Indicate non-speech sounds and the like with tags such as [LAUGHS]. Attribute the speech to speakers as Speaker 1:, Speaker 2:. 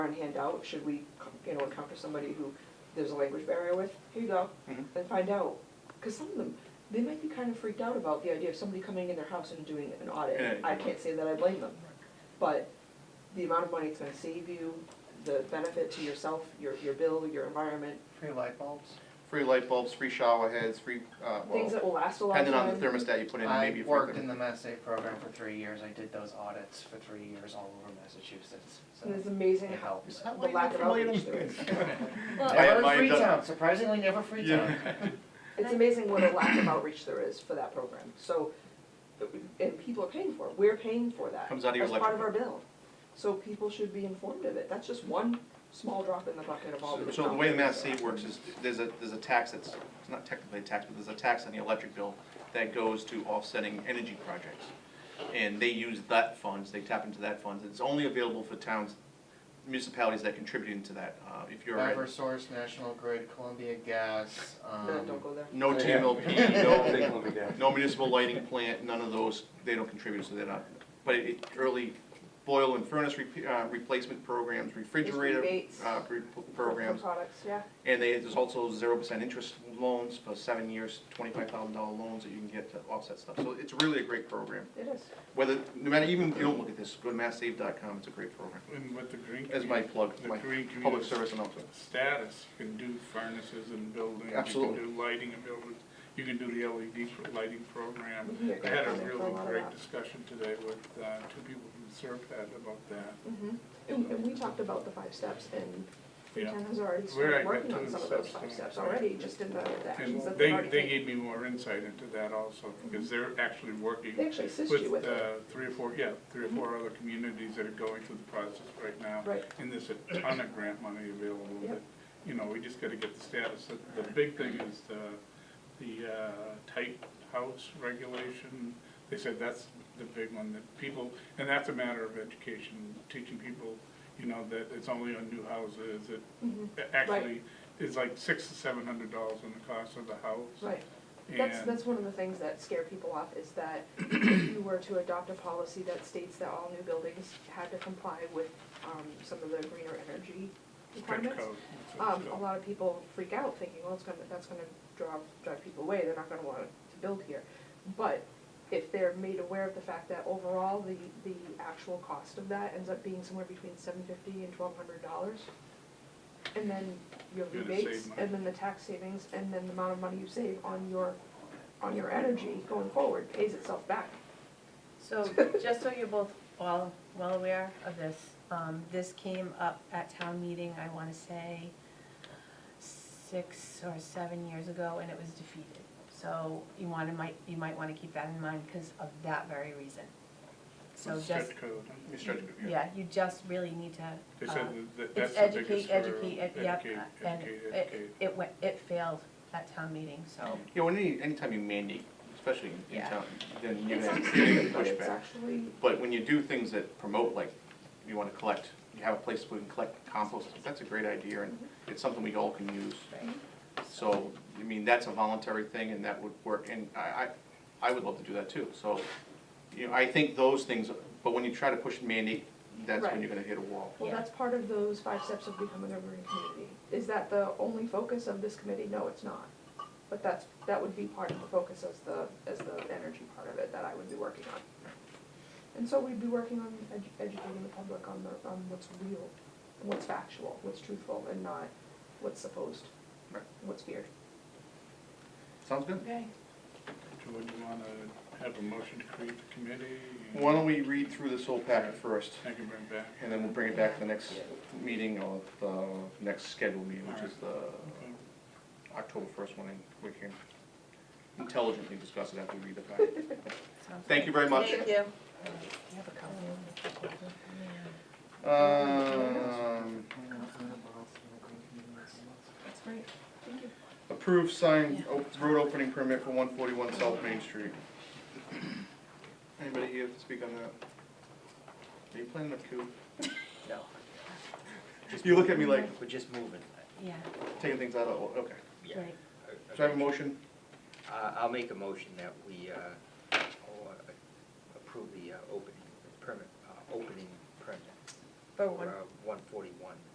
Speaker 1: one handout, should we, you know, encounter somebody who there's a language barrier with, here you go,
Speaker 2: Mhm.
Speaker 1: and find out. Because some of them, they might be kind of freaked out about the idea of somebody coming in their house and doing an
Speaker 2: Yeah.
Speaker 1: audit. I can't say that I blame them, but the amount of money it's gonna save you, the benefit to yourself, your, your bill, your environment,
Speaker 3: Free light bulbs.
Speaker 2: Free light bulbs, free shower heads, free, uh,
Speaker 1: things that
Speaker 2: well,
Speaker 1: will last a lifetime.
Speaker 2: depending on the thermostat you put in, maybe.
Speaker 3: I
Speaker 2: for
Speaker 3: worked
Speaker 2: them.
Speaker 3: in the Mass Save program for three years, I did those audits for three years all over Massachusetts, so
Speaker 1: And it's
Speaker 3: it
Speaker 1: amazing how,
Speaker 3: helped.
Speaker 4: Is that
Speaker 1: The
Speaker 4: why you're
Speaker 1: lack
Speaker 4: not
Speaker 1: of
Speaker 4: familiar
Speaker 1: outreach
Speaker 4: with
Speaker 1: there.
Speaker 4: this?
Speaker 2: [LAUGHS]
Speaker 5: Well,
Speaker 2: I-
Speaker 3: Never
Speaker 2: mine
Speaker 3: Free
Speaker 2: done.
Speaker 3: Town, surprisingly never Free
Speaker 2: [LAUGHS]
Speaker 3: Town.
Speaker 1: It's amazing what a lack of outreach there is for that program, so, and people are paying for it, we're paying for that.
Speaker 2: Comes out of your
Speaker 1: That's part of our
Speaker 2: electric
Speaker 1: bill, so people should be informed of it, that's just one small drop in the bucket of all the.
Speaker 2: So the way the Mass Save works is, there's a, there's a tax that's, it's not technically a tax, but there's a tax on the electric bill that goes to offsetting energy projects. And they use that funds, they tap into that funds, it's only available for towns, municipalities that contribute into that, uh, if you're. at-
Speaker 3: Eversource, National Grid, Columbia Gas, um.
Speaker 1: No, [LAUGHS] don't go there.
Speaker 2: No
Speaker 4: Yeah.
Speaker 2: TMLP,
Speaker 4: [LAUGHS]
Speaker 2: no,
Speaker 4: Take one down.
Speaker 2: No municipal lighting plant, none of those, they don't contribute, so they're not, but it, it- early boil and furnace rep- uh, replacement programs, refrigerator
Speaker 1: rebates.
Speaker 2: uh, re- programs.
Speaker 1: For Products, yeah,
Speaker 2: And they, there's also zero percent interest loans for seven years, twenty-five thousand dollar loans that you can get to offset stuff. So it's really a great program.
Speaker 1: it is.
Speaker 2: Whether, no matter, even if you don't look at this, go to masssave.com, it's a great program.
Speaker 6: And with the green.
Speaker 2: As my
Speaker 6: commu-
Speaker 2: plug,
Speaker 6: The
Speaker 2: my
Speaker 6: green
Speaker 2: public
Speaker 6: community
Speaker 2: service announcement.
Speaker 6: status, you can do furnaces and buildings.
Speaker 2: Absolutely.
Speaker 6: You can do lighting and buildings, you can do the LED pro- lighting program.
Speaker 1: Mhm.
Speaker 6: I had a
Speaker 1: Yeah.
Speaker 6: really
Speaker 1: Yeah.
Speaker 6: great discussion today with uh, two people from Serpad about that.
Speaker 1: Mhm. And, and we talked about the five steps, and
Speaker 6: Yeah.
Speaker 1: Freetown has already
Speaker 6: Where I
Speaker 1: started
Speaker 6: got
Speaker 1: working on
Speaker 6: to
Speaker 1: some of
Speaker 6: the
Speaker 1: those
Speaker 6: steps,
Speaker 1: five
Speaker 6: yeah.
Speaker 1: steps already, just in the the actions
Speaker 6: And
Speaker 1: that they've
Speaker 6: they,
Speaker 1: already
Speaker 6: they
Speaker 1: taken.
Speaker 6: gave me more insight into that also, because they're actually working
Speaker 1: They actually assist you
Speaker 6: with
Speaker 1: with it, Mm-hmm.
Speaker 6: uh, three or four, yeah, three or four other communities that are going through the process right now.
Speaker 1: right,
Speaker 6: And there's a ton of grant money available
Speaker 1: Yep.
Speaker 6: that, you know, we just gotta get the status. The- The big thing is the, the uh, tight house regulation. They said that's the big one that people, and that's a matter of education, teaching people, you know, that it's only on new houses. It
Speaker 1: Mhm.
Speaker 6: a- actually is like six to seven hundred dollars on the cost of the house.
Speaker 1: right. That's,
Speaker 6: And-
Speaker 1: that's one of the things that scare people off, is that if you were to adopt a policy that states that all new buildings had to comply with, um, some of the greener energy
Speaker 6: Stretch
Speaker 1: requirements.
Speaker 6: code, that's what
Speaker 1: Um,
Speaker 6: it's
Speaker 1: a
Speaker 6: called.
Speaker 1: lot of people freak out thinking, well, it's gonna, that's gonna draw, drive people away, they're not gonna want to build here. But if they're made aware of the fact that overall, the, the actual cost of that ends up being somewhere between seven fifty and twelve hundred dollars. And then your
Speaker 6: You're gonna
Speaker 1: rebates,
Speaker 6: save money.
Speaker 1: and then the tax savings, and then the amount of money you save on your, on your energy going forward pays itself back.
Speaker 5: So, just so you're both all well aware of this, um, this came up at town meeting, I wanna say, six or seven years ago, and it was defeated. So you wanna, might, you might wanna keep that in mind because of that very reason. So just,
Speaker 6: Stretch code.
Speaker 2: You stretch it, yeah.
Speaker 5: yeah, you just really need to,
Speaker 6: They
Speaker 5: uh,
Speaker 6: said that- that,
Speaker 5: it's
Speaker 6: that's the biggest
Speaker 5: educate,
Speaker 6: for
Speaker 5: educate, ed- yep,
Speaker 6: educate,
Speaker 5: uh, and
Speaker 6: educate, educate.
Speaker 5: it, it went, it failed at town meeting, so.
Speaker 2: You know, any, anytime you mandate, especially in- in
Speaker 5: Yeah.
Speaker 2: town, then you're
Speaker 1: It
Speaker 2: gonna
Speaker 1: sounds
Speaker 2: you're gonna
Speaker 1: stupid,
Speaker 2: get
Speaker 1: but it's
Speaker 2: pushback.
Speaker 1: actually,
Speaker 2: But when you do things that promote, like, you wanna collect, you have a place where you can collect compost, that's a great idea, and it's something we all can use.
Speaker 5: Right.
Speaker 2: So, I mean, that's a voluntary thing, and that would work, and I, I, I would love to do that too, so, you know, I think those things, but when you try to push mandate, that's when
Speaker 1: Right.
Speaker 2: you're gonna hit a wall.
Speaker 1: Well,
Speaker 5: Yeah.
Speaker 1: that's part of those five steps of becoming a green community. Is that the only focus of this committee? No, it's not. But that's, that would be part of the focus as the, as the energy part of it that I would be working on. And so we'd be working on edu- educating the public on the, on what's real, what's factual, what's truthful, and not what's supposed,
Speaker 2: Right.
Speaker 1: what's feared.
Speaker 2: Sounds good?
Speaker 5: Okay.
Speaker 6: So would you wanna have a motion to create the committee? and-
Speaker 2: Why don't we read through this whole packet first,
Speaker 6: I can bring back.
Speaker 2: and then we'll bring it back to the next meeting or the next scheduled meeting, which is the
Speaker 6: Okay.
Speaker 2: October first one, and we can intelligently discuss it after we read the packet. Thank you very much.
Speaker 5: Thank you.
Speaker 2: Um, approved sign, op- road opening permit for one forty-one South Main Street. Anybody here to speak on that? Are you planning a coup?
Speaker 7: No,
Speaker 2: You look at me like,
Speaker 7: we're just moving.
Speaker 5: Yeah,
Speaker 2: taking things out of, order. okay.
Speaker 7: Yeah.
Speaker 5: right.
Speaker 2: So I have a motion?
Speaker 7: Uh, I'll make a motion that we uh, all, uh, approve the uh, opening permit, uh, opening permit. uh,
Speaker 5: For one-
Speaker 7: 141.